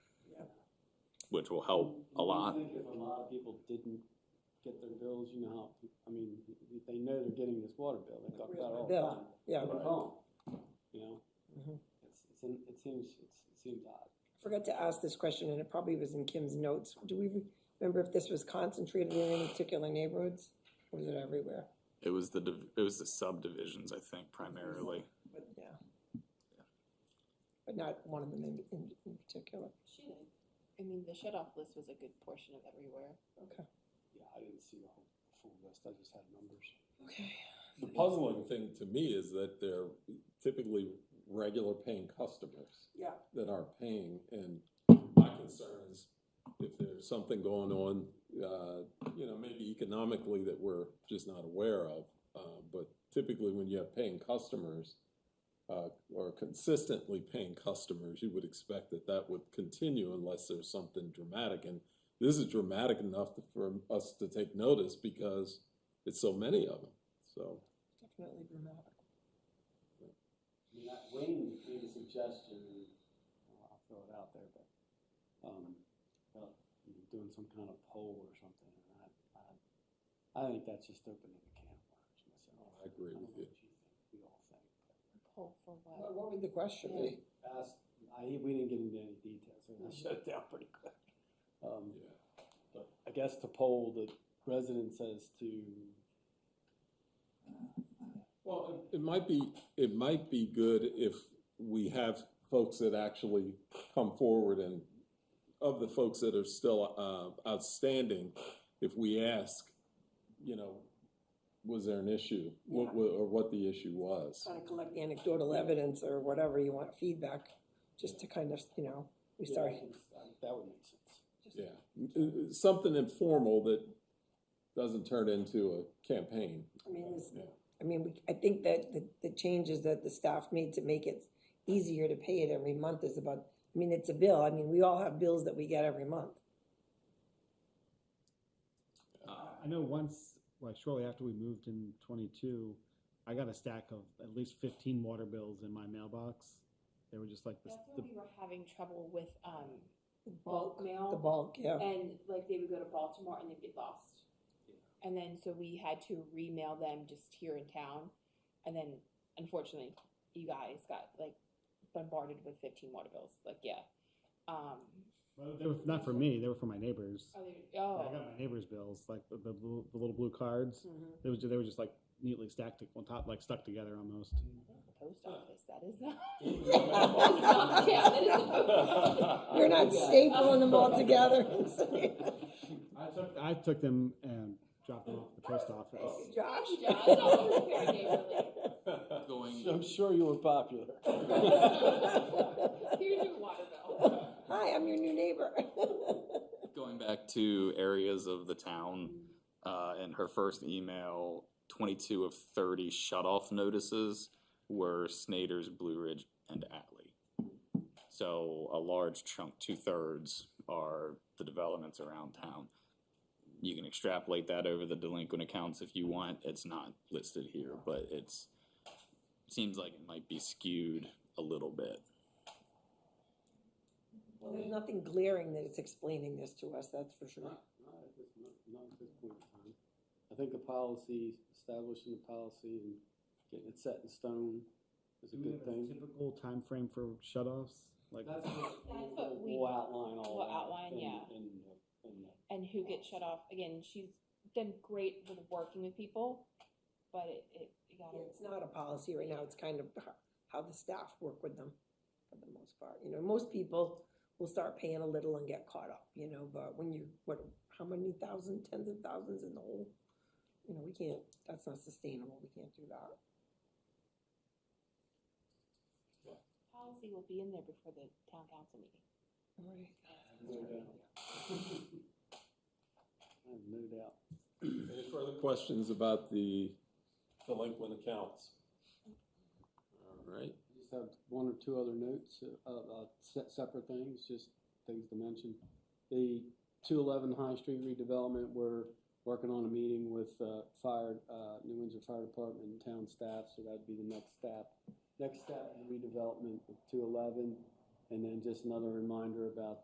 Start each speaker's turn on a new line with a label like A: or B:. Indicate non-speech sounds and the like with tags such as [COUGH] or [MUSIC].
A: which will
B: Oh,
A: help a lot.
C: I think if a lot of people didn't get their bills, you know, how pe- I mean, if they know they're getting this water bill, they talk about it all the
D: Yeah,
C: time.
D: yeah.
C: They're calm, you know?
D: Mhm.
C: It's, it's, in- it seems, it's, it seems odd.
D: Forgot to ask this question, and it probably was in Kim's notes. Do we remember if this was concentrated in any particular neighborhoods? Or was it everywhere?
A: It was the, div- it was the subdivisions, I think, primarily.
D: But yeah. But not one of them in, in, in particular.
E: Shouldn't. I mean, the shut off list was a good portion of everywhere.
D: Okay.
C: Yeah, I didn't see the whole, the full list, I just had numbers.
D: Okay.
B: The puzzling thing to me is that they're typically regular paying customers
D: Yeah.
B: that are paying, and my concern is if there's something going on, uh, you know, maybe economically that we're just not aware of, uh, but typically when you have paying customers, uh, or consistently paying customers, you would expect that that would continue unless there's something dramatic, and this is dramatic enough to- for us to take notice because it's so many of them, so.
D: Definitely dramatic.
C: I mean, that Wayne made a suggestion, and well, I'll throw it out there, but, um, about you know, doing some kind of poll or something, and I, I, I think that's just opening the can of worms myself.
B: I agree
C: don't
B: with
C: know
B: you.
C: what think, We all think, but
E: Pull for
D: What,
E: what?
D: what would the question be?
C: asked, I, we didn't get into any details, so I shut it down pretty quick. Um,
B: Yeah.
C: but I guess to poll the residents as to,
B: Well, it it might be, it might be good if we have folks that actually come forward and of the folks that are still uh, outstanding, if we ask, you know, was there an issue? What, wa- or what the issue was?
D: Kind of collect anecdotal evidence or whatever you want, feedback, just to kind of, you know, we
C: yeah,
D: start.
C: I think that would make sense.
B: Yeah, Uh, uh, something informal that doesn't turn into a campaign.
D: I mean, this,
B: Yeah.
D: I mean, we- I think that the, the changes that the staff made to make it easier to pay it every month is about, I mean, it's a bill, I mean, we all have bills that we get every month.
A: Uh,
F: I know once, like shortly after we moved in twenty-two, I got a stack of at least fifteen water bills in my mailbox. They were just like this,
E: That's
F: the,
E: when we were having trouble with um, bulk
D: The
E: mail,
D: bulk, yeah,
E: and like they would go to Baltimore and they'd get lost. And then so we had to remail them just here in town, and then unfortunately, you guys got like bombarded with fifteen water bills. Like yeah, um,
F: Well, they were not for me, they were for my neighbors.
E: are there-
F: I
E: oh,
F: got my neighbors' bills, like the, the, blue- the little blue
E: Hmm.
F: cards.
D: Mhm.
E: Mm-hmm.
F: They was, they were just like neatly stacked on top, like stuck together almost.
E: the post office. That is not. [LAUGHS] yeah, that is the post office. Oh
D: you're
C: You're
D: [LAUGHS] not stapling them
E: [LAUGHS]
D: all together.
F: I took, I took them and dropped them off at the post
D: [LAUGHS] [LAUGHS]
F: office.
D: Josh?
E: Josh, oh, very neighborly.
A: Going,
C: I'm sure you were popular.
E: Here's your water bill. [LAUGHS]
D: Hi, I'm your new neighbor. [LAUGHS]
A: going back to areas of the town, uh, in her first email, twenty-two of thirty shut-off notices were Snyder's, Blue Ridge, and Atlee. So a large chunk, two-thirds, are the developments around town. You can extrapolate that over the delinquent accounts if you want, it's not listed here, but it's, seems like it might be skewed a little bit.
D: Well, there's nothing glaring that it's explaining this to us, that's for sure.
C: Not, not at this, not, not at this point in time. I think the policy, establishing the policy and getting it set in stone is a
F: Do we
C: good
F: have a
C: thing.
F: typical frame for shut-offs? Like,
C: That's what
E: That's
C: we'll-
E: what we-
C: We'll outline all
E: we'll
C: that.
E: outline,
C: in-
E: yeah.
C: in the- in the-
E: And who gets shut off? Again, she's done great with working with people, but it, it you gotta.
D: It's not a policy right now, it's kind of h- how the staff work with them for the most part. You know, most people will start paying a little and get caught up, you know, but when you, what, how many thousand, tens of thousands in the hole? You know, we can't, that's not sustainable, we can't do that.
E: Policy will be in there before the town council meeting.
C: I have no doubt.
B: Any further questions about the delinquent accounts? All right,
C: I just have one or two other notes, uh, uh, se- separate things, just things to mention. The two eleven High Street redevelopment, we're working on a meeting with, uh, fire, uh, New Windsor Fire Department and town staff, so that'd be the next step. Next step, redevelopment of two eleven, and then just another reminder about